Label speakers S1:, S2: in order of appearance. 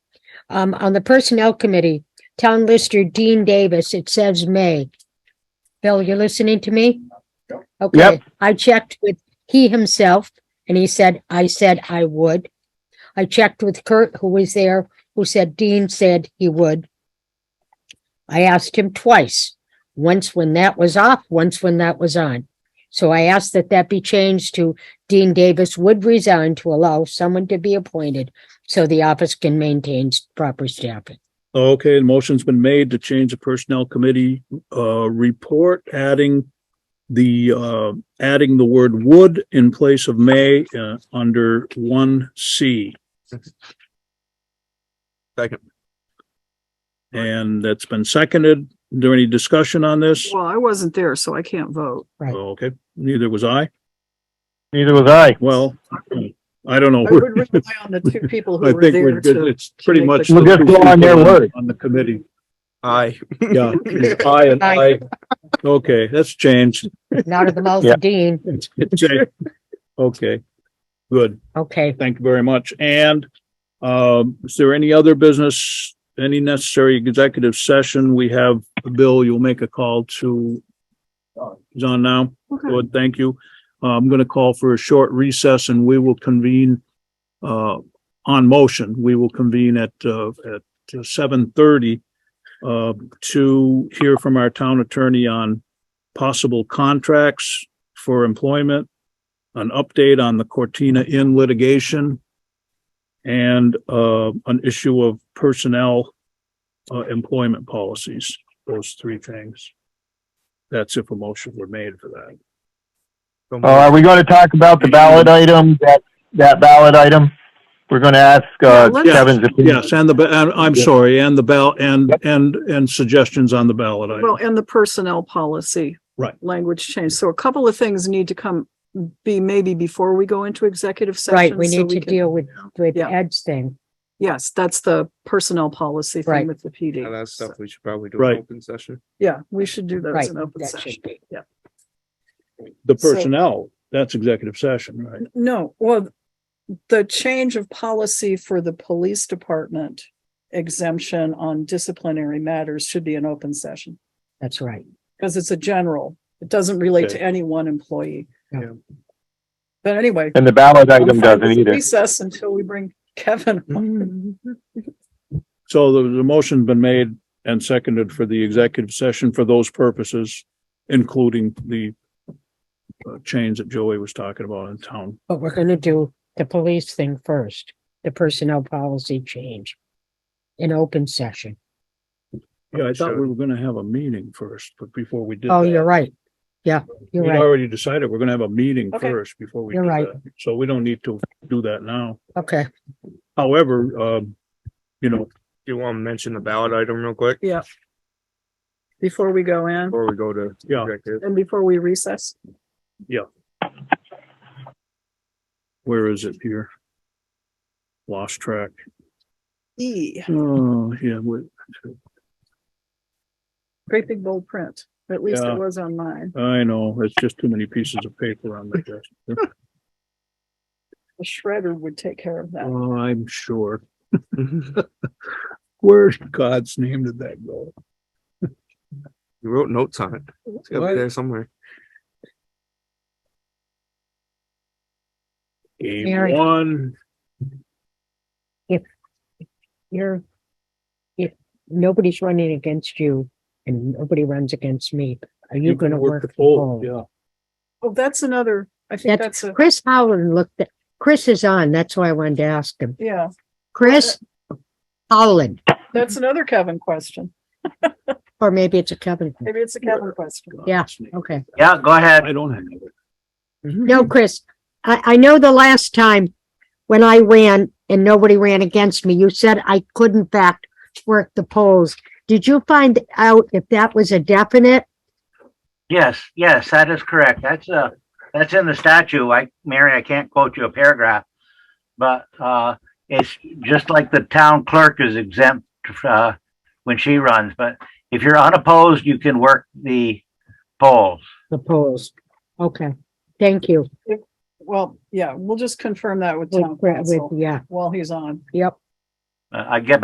S1: Um, on the Personnel Committee, Town Lister Dean Davis, it says May. Bill, you're listening to me? Okay,
S2: Yep.
S1: I checked with he himself and he said, I said I would. I checked with Kurt, who was there, who said Dean said he would. I asked him twice, once when that was off, once when that was on. So I asked that that be changed to Dean Davis would resign to allow someone to be appointed so the office can maintain proper staffing.
S2: Okay, the motion's been made to change the personnel committee, uh, report, adding the, uh, adding the word would in place of may, uh, under one C.
S3: Second.
S2: And that's been seconded. Is there any discussion on this?
S4: Well, I wasn't there, so I can't vote.
S2: Okay, neither was I.
S5: Neither was I.
S2: Well, I don't know.
S4: I would rely on the two people
S2: I
S4: who were
S2: think we're,
S4: there
S2: good.
S4: to.
S2: it's pretty
S4: make
S2: much.
S4: the-
S5: We'll just go on their word.
S2: On the committee,
S3: Aye.
S2: yeah. Aye and
S1: Aye.
S2: aye. Okay, that's changed.
S1: Not of the mouth of Dean.
S2: It's- it's changed. Okay, good.
S1: Okay,
S2: Thank you very much. And, um, is there any other business, any necessary executive session? We have, Bill, you'll make a call to he's on now.
S4: Okay.
S2: Good, thank you. Uh, I'm going to call for a short recess and we will convene, uh, on motion. We will convene at, uh, at seven thirty, uh, to hear from our town attorney on possible contracts for employment, an update on the Cortina Inn litigation, and, uh, an issue of personnel, uh, employment policies, those three things. That's if a motion were made for that. Oh,
S5: Uh, are we going to talk about the ballot item, that, that ballot item? We're going to ask, uh,
S4: Well, let's-
S5: Kevin's opinion.
S2: Yes, and the, ba- and I'm
S5: Yeah.
S2: sorry, and the ballot, and, and, and suggestions on the ballot
S4: Well,
S2: item.
S4: and the personnel policy.
S2: Right.
S4: Language change. So a couple of things need to come, be maybe before we go into executive session.
S1: right, we
S4: so
S1: need to
S4: can-
S1: deal with, with
S4: Yeah.
S1: Ed's thing.
S4: Yes, that's the personnel policy
S1: Right.
S4: thing with the PD.
S3: Now, That's stuff we should probably do. an
S2: Right.
S3: Open session.
S4: Yeah, we should do that as
S1: Right,
S4: an open
S1: that
S4: session.
S1: should be.
S2: The
S4: so-
S2: personnel, that's executive session, right?
S4: No, well, the change of policy for the police department exemption on disciplinary matters should be an open session.
S1: That's right.
S4: because it's a general. It doesn't relate to
S2: Okay.
S4: any one employee.
S1: Yeah.
S4: But anyway.
S5: And the ballot
S4: I'm
S5: item
S4: fine with
S5: doesn't either.
S4: Recess until we bring Kevin.
S2: Hmm.
S4: on.
S2: So the, the motion's been made and seconded for the executive session for those purposes, including the uh, change that Joey was talking about in town.
S1: But we're gonna do the police thing first, the personnel policy change. In open session.
S2: Yeah, I thought we were gonna have a meeting first, but before we did
S1: Oh,
S2: that,
S1: you're right. Yeah, you're
S2: we
S1: right.
S2: already decided we're gonna have a meeting
S4: Okay.
S2: first before we
S1: You're
S2: do
S1: right.
S2: that. So we don't need to do that now.
S1: Okay,
S2: However, um, you know,
S3: Do you want to mention the ballot item real quick
S4: Before we go in
S3: before we go to?
S2: Yeah.
S3: executive?
S4: and before we recess,
S2: where is it here? Lost track.
S4: E,
S2: Oh, yeah, we-
S4: great big bold print. At least
S2: Yeah.
S4: it was on mine.
S2: I know, it's just too many pieces of paper on the desk.
S4: The shredder would take care of that.
S2: Oh, I'm sure. Where in God's name did that go?
S3: You wrote notes on it. It's up
S2: What?
S3: there somewhere.
S2: Game
S1: Mary.
S2: one,
S1: you're. If nobody's running against you and nobody runs against me, are you gonna work?
S2: the
S1: the
S2: poll,
S1: poll?
S2: yeah.
S4: Oh, that's another, I think
S1: That's-
S4: that's a,
S1: Chris Howland looked, at- Chris is on, that's why I wanted to ask him.
S4: yeah,
S1: Chris Howland,
S4: that's another Kevin question.
S1: or maybe it's a Kevin.
S4: Maybe it's a Kevin question.
S2: God's
S1: Yeah.
S2: name.
S1: Okay.
S5: Yeah, go ahead.
S2: I don't have it.
S1: No, Chris, I, I know the last time when I ran and nobody ran against me, you said I could in fact work the polls. Did you find out if that was a definite?
S6: Yes, yes, that is correct. That's uh that's in the statute. I, Mary, I can't quote you a paragraph. But uh, it's just like the town clerk is exempt uh, when she runs. But if you're unopposed, you can work the polls.
S1: The polls. Okay, thank you.
S4: Well, yeah, we'll just confirm that with
S1: With-
S4: town
S1: with-
S4: council
S1: Yeah,
S4: while he's on.
S1: yep.
S6: Uh, I get